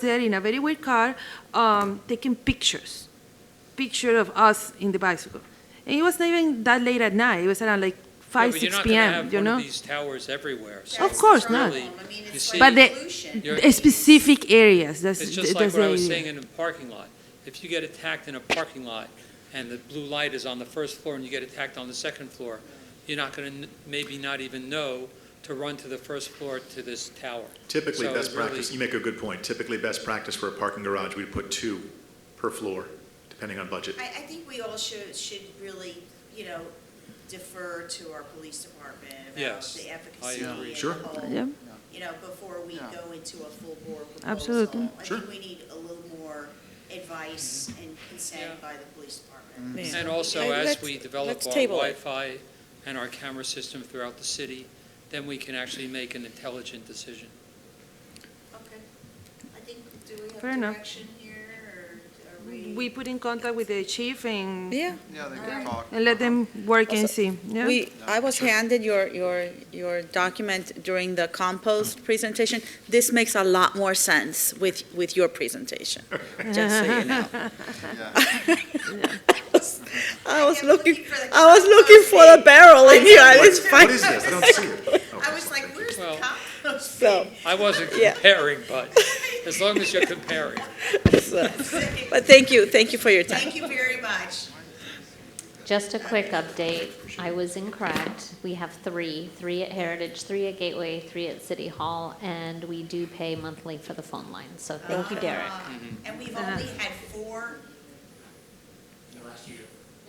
there in a very weird car, um, taking pictures, picture of us in the bicycle. And it was not even that late at night. It was around like five, six p.m. You You're not going to have one know, of these towers everywhere. so Of it's course not. really- I mean, you it's see- like but the, pollution. You're- the specific areas. That's It's just like that's what I the was area. saying in a parking lot. If you get attacked in a parking lot and the blue light is on the first floor and you get attacked on the second floor, you're not going to maybe not even know to run to the first floor to this tower. Typically, So best it really- practice, you make a good point. Typically, best practice for a parking garage, we'd put two per floor, depending on budget. I, I think we all should, should really, you know, defer to our police department about Yes, the I efficacy agree. and Sure. the whole, Yeah. you know, before we go into a full board proposal. Absolutely. I Sure. think we need a little more advice and consent Mm-hmm. Yeah. by the police department. Mm-hmm. Yeah. And also, Uh, as let's- we develop let's our table it. Wi-Fi and our camera system throughout the city, then we can actually make an intelligent decision. Okay. I think, do we Fair have enough. direction here, or are we? We put in contact with the chief and Yeah. Yeah, they Alright. can talk. and let them work and Also, see. Yeah. We, I was handed your, your, your document during the compost presentation. This makes a lot more sense with, with your presentation, just so you know. I was- I was I'm looking, looking for the I was looking for the compost bin. barrel in here, I What- didn't find What is this? I don't see it. Oh, I was like, where's the Well- compost? So- bin? I wasn't Yeah. comparing, but as long as you're comparing. it. But thank you, thank you for your time. Thank you very much. Just a quick update. I was incorrect. We have three, three at Heritage, three at Gateway, three at City Hall, and we do pay monthly for the phone line. So thank you, Derek. Uh, And we've only had four?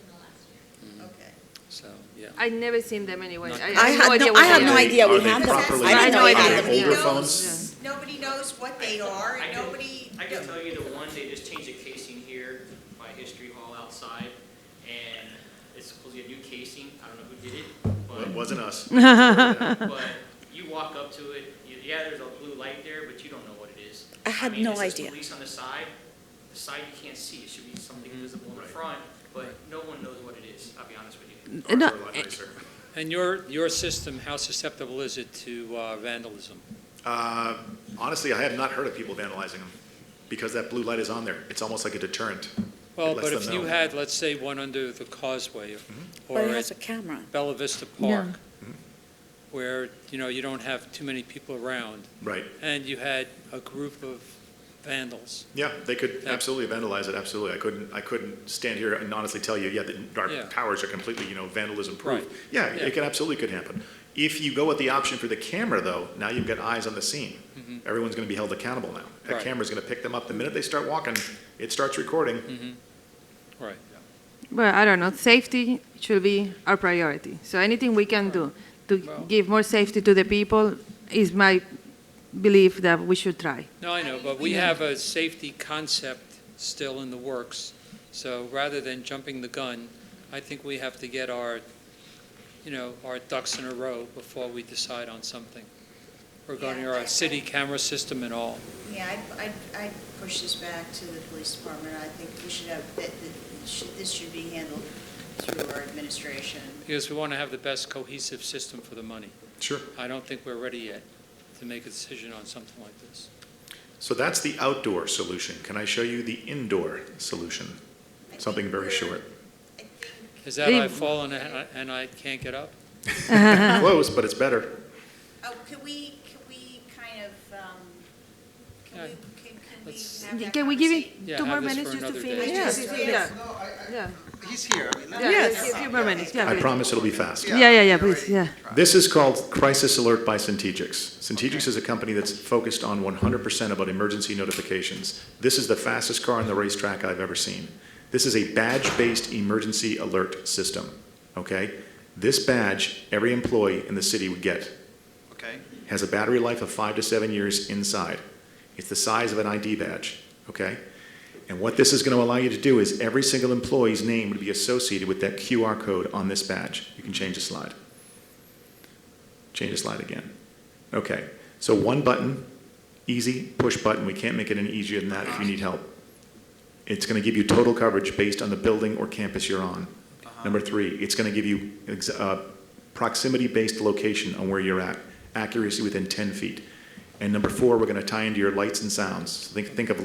In the last year. So, yeah. I never seen them anyway. I, I had no, I what had they no are. idea Are we they had Okay. that. properly I had no identified? idea. Older Nobody knows- phones? Nobody knows what they are, and nobody, I can tell you the one, they just changed the casing here by History Hall outside, and it's supposedly a new casing, I don't know who did Well, It it, wasn't us. but, but you walk up to it, you- yeah, there's a blue light there, but you don't know what it is. I had mean, no it says idea. police on the side, the side you can't see, it should be something visible in Mm-hmm. the Right. front, but no one knows what it is, I'll be honest with you. Ours No, were a lot nicer. And your, your system, how susceptible is it to uh, vandalism? Uh, Honestly, I have not heard of people vandalizing them, because that blue light is on there. It's almost like a deterrent. Well, lets but them if you know. Mm-hmm. had, let's say, one under the causeway or But it has at a camera. Bella Vista Yeah. Park, where, you know, you don't have too many people around, Right, and you had a group of vandals. yeah, they could Yeah. absolutely vandalize it, absolutely. I couldn't, I couldn't stand here and honestly tell you, yeah, the- Yeah. our towers are completely, you know, vandalism Right. proof. Yeah, Yeah. it could, absolutely could happen. If you go with the option for the camera, though, now you've got eyes on the scene. Everyone's going to be held accountable now. That Mm-hmm. Right. camera's going to pick them up. The minute they start walking, it starts recording. Mm-hmm. Right. Well, I don't know, safety should be our priority. So anything we can do to Well- give more safety to the people is my belief that we should try. No, I know, but we have a safety concept still in the works. So rather than jumping the gun, I think we have to get our, you know, our ducks in a row before we decide on something regarding Yeah, I- our city camera system and all. yeah, I, I, I push this back to the police department, I think we should have, that, that, should- this should be handled through our administration. Because we want to have the best cohesive system for the money. Sure. I don't think we're ready yet to make a decision on something like this. So that's the outdoor solution. Can I show you the indoor solution? I think Something very we're- short. I think, Is that I Leave- fall and I- and I can't get up? Close, but it's better. oh, could we, could we kind of, um, can Yeah. we, can, can we Let's- have that Can we give conversa- it Yeah, two more have this for minutes just to another finish? day. this? Yeah. Yeah, No, I, I, yeah, he's here. I mean, let yeah, him let's talk. give a few more minutes, yeah. I please. promise it'll be fast. Yeah, yeah, yeah, we please, already yeah. tried. This is called Crisis Alert by Centegix. Centegix is a company that's focused on 100% about emergency notifications. This is the fastest car on the racetrack I've ever seen. This is a badge-based emergency alert system, okay? This badge, every employee in the city would get. Okay, has a battery life of five to seven years inside. It's the size of an ID badge, okay? And what this is going to allow you to do is every single employee's name would be associated with that QR code on this badge. You can change the slide. Change the slide again. Okay, so one button, easy push button. We can't make it any easier than that if you need help. It's going to give you total coverage based on the building or campus you're on. Number three, it's going to give you ex- uh, proximity-based location on where you're at, accuracy within 10 feet. And number four, we're going to tie into your lights and sounds. Think, think of